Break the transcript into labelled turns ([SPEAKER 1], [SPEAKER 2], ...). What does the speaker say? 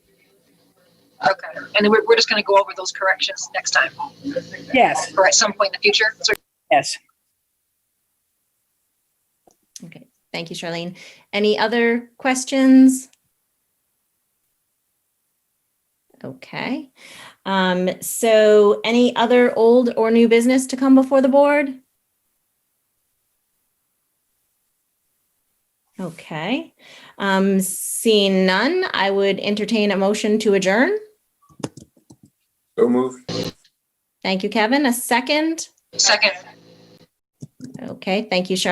[SPEAKER 1] Okay, and then we're, we're just gonna go over those corrections next time,
[SPEAKER 2] Yes,
[SPEAKER 1] or at some point in the future, so
[SPEAKER 2] yes.
[SPEAKER 3] Okay, thank you, Charlene. Any other questions? Okay, um, so any other old or new business to come before the board? Okay, um, seeing none, I would entertain a motion to adjourn.
[SPEAKER 4] So moved.
[SPEAKER 3] Thank you, Kevin. A second?
[SPEAKER 1] second.
[SPEAKER 3] Okay, thank you, Charlene.